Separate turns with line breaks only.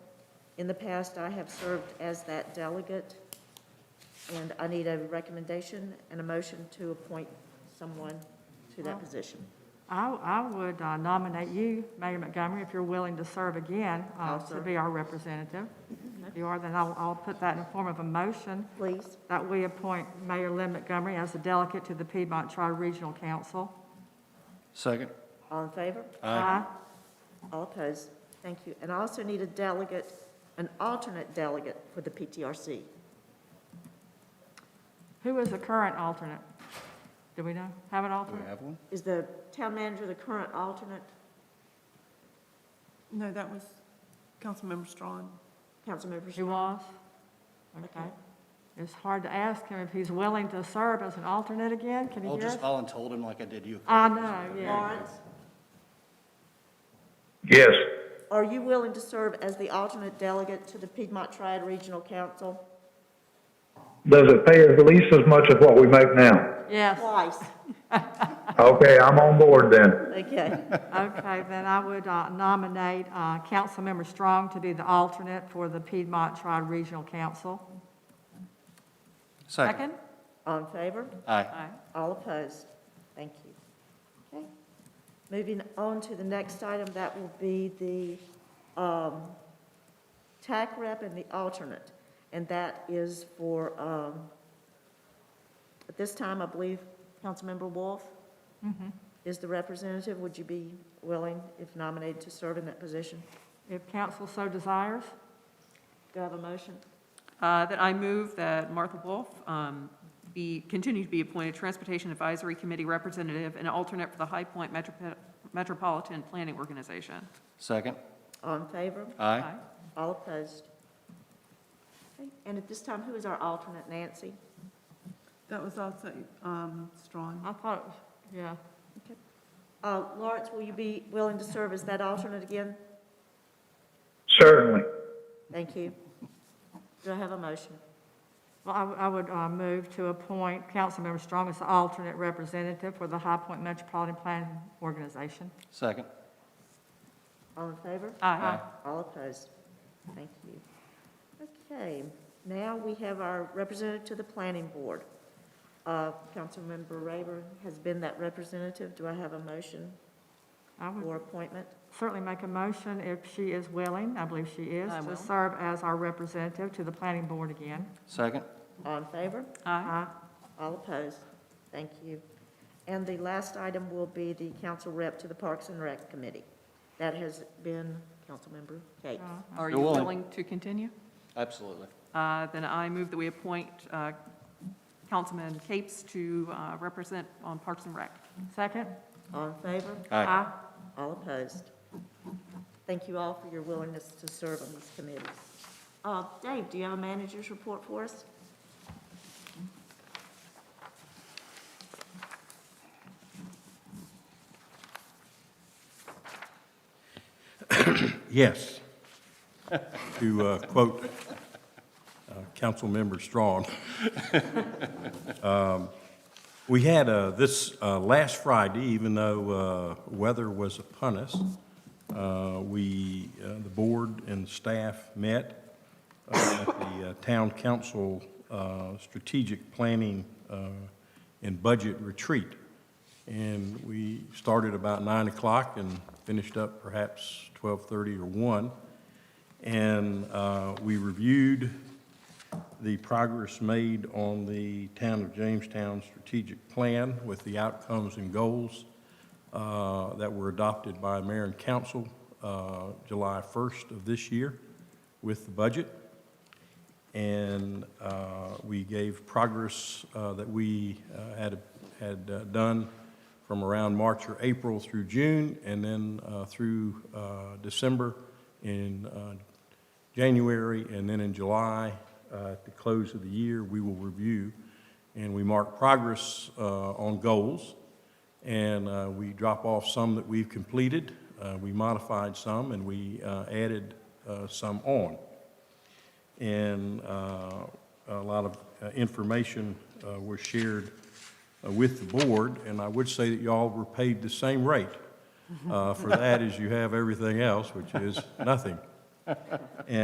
In the past, I have served as that delegate, and I need a recommendation and a motion to appoint someone to that position.
I, I would uh, nominate you, Mayor Montgomery, if you're willing to serve again, uh,
I'll
to
serve. Mm-hmm.
be our representative. If you are, then I'll, I'll put that in the form of a motion
Please,
that we appoint Mayor Lynn Montgomery as a delegate to the Piedmont Tri-Regional Council.
Second.
all in favor?
Aye.
All opposed? Thank you. And I also need a delegate, an alternate delegate for the PTRC.
Who is the current alternate? Do we know? Have an alternate?
have one?
Is the town manager the current alternate?
No, that was Councilmember Strawn.
Councilmember
She
Shaw?
was? Okay. It's hard to ask him if he's willing to serve as an alternate again. Can you
I'll
hear
just,
us?
I'll untold him like I did you.
I know, yeah.
Lawrence,
Yes,
are you willing to serve as the alternate delegate to the Piedmont Triad Regional Council?
does it pay at least as much as what we make now?
Yes,
Twice,
Okay, I'm on board then.
okay.
okay, then I would uh, nominate uh, Councilmember Strong to be the alternate for the Piedmont Tri-Regional Council. Second?
All in favor?
Aye.
Aye.
All opposed? Thank you. Okay. Moving on to the next item, that will be the um, TAC rep and the alternate. And that is for, um, at this time, I believe, Councilmember Wolf is the representative. Would you be willing, if nominated, to serve in that position?
If council so desires.
Do I have a motion?
Uh, That I move that Martha Wolf um, be, continue to be appointed Transportation Advisory Committee Representative and alternate for the High Point Metropo- Metropolitan Planning Organization.
Second.
All in favor?
Aye.
All opposed? Okay. And at this time, who is our alternate? Nancy?
That was also um, Strawn.
I thought, it was- yeah.
Uh, Lawrence, will you be willing to serve as that alternate again?
Certainly.
Thank you. Do I have a motion?
Well, I would- I would uh, move to appoint Councilmember Strong as the alternate representative for the High Point Metropolitan Planning Organization.
Second.
All in favor?
Aye.
All opposed? Thank you. Okay, now we have our representative to the planning board. Uh, Councilmember Rayburn has been that representative. Do I have a motion
I would
for appointment?
certainly make a motion if she is willing, I believe she is,
I
to
will.
serve as our representative to the planning board again.
Second.
All in favor?
Aye.
Aye.
All opposed? Thank you. And the last item will be the council rep to the Parks and Rec Committee. That has been Councilmember Cates.
Are
You're
you
willing.
willing to continue?
Absolutely.
Uh, Then I move that we appoint uh, Councilman Capes to uh, represent on Parks and Rec.
Second?
All in favor?
Aye.
Aye.
All opposed? Thank you all for your willingness to serve on these committees. Uh, Dave, do you have a manager's report for us?
Yes. To uh, quote uh, Councilmember Strong. Um, We had uh, this uh, last Friday, even though uh, weather was upon us, uh, we, uh, the board and staff met uh, at the uh, Town Council uh, Strategic Planning uh, and Budget Retreat. And we started about nine o'clock and finished up perhaps twelve-thirty or one. And uh, we reviewed the progress made on the Town of Jamestown Strategic Plan with the outcomes and goals uh, that were adopted by mayor and council uh, July first of this year with the budget. And uh, we gave progress uh, that we uh, had, had uh, done from around March or April through June, and then uh, through uh, December in uh, January, and then in July, uh, at the close of the year, we will review. And we mark progress uh, on goals, and uh, we drop off some that we've completed. uh, We modified some, and we uh, added uh, some on and uh, a lot of uh, information uh, was shared uh, with the board, and I would say that y'all were paid the same rate uh, for that as you have everything else, which is nothing.